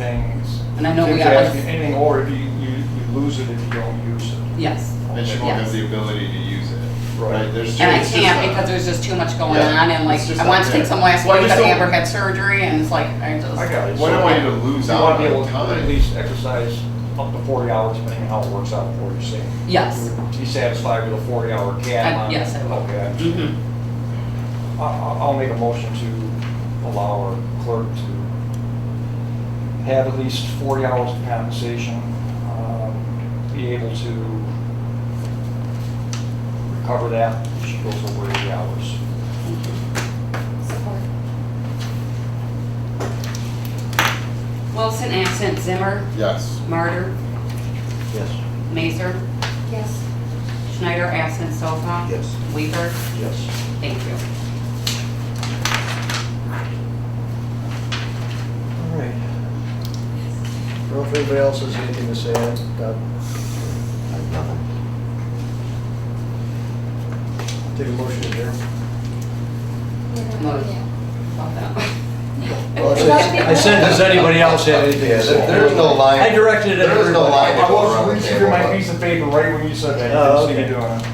things. And I know we Kids got, like- asking anything, or if you, you, you lose it if you don't use it. Yes. And she won't have the ability to use it, right? There's And I just- it's just can't a- because there's just too much going Yeah, on and like, it's just I out wanted to take there. some last Well, I week, but just I don't- ever had surgery and it's like, I I got it. just. What do I need to lose out want to be on able to time? at least exercise up to forty hours, depending on how it works out for you, see? Yes. Be satisfied with a forty-hour cap I- on it? yes, I will. Okay. Mhm. I- I- I'll make a motion to allow our clerk to have at least forty hours of compensation, um, be able to recover that if she goes over eighty hours. Support. Wilson, absent. Zimmer, Yes, Martyr, Yes. Mazer, Yes. Schneider, absent. Sofa. Yes. Weaver. Yes. Thank you. All right. Well, if anybody else has anything to say, uh, Doug? Nothing. Take a motion here. Well, Love that. I said, does anybody else have anything to say? There's no line. I directed it at There is no everybody. line. I was reaching for my piece of paper right when you said that, I Oh, didn't see you okay. doing it.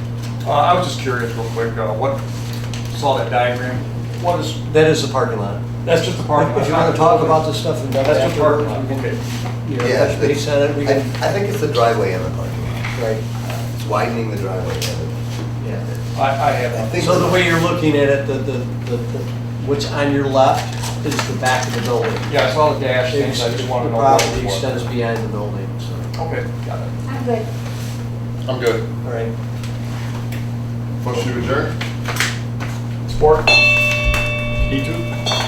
Uh, I was just curious real quick, uh, what, saw that diagram, what is, That is the parking lot. that's just the parking lot. If you want to talk about this stuff and That's just the parking afterwards, lot, we can, okay. you know, Yeah, touch base on it, we I, can, I think it's the driveway and the parking lot. right, It's widening the driveway. and yeah. I, I have I that. think- So the way you're looking at it, the, the, the, the- what's on your left is the back of the building. Yeah, I saw the dash things, I just wanted to know. The what it property was. extends behind the building, so, Okay, got it. I'm good. I'm good. all right. Motion to adjourn? Sport? E two?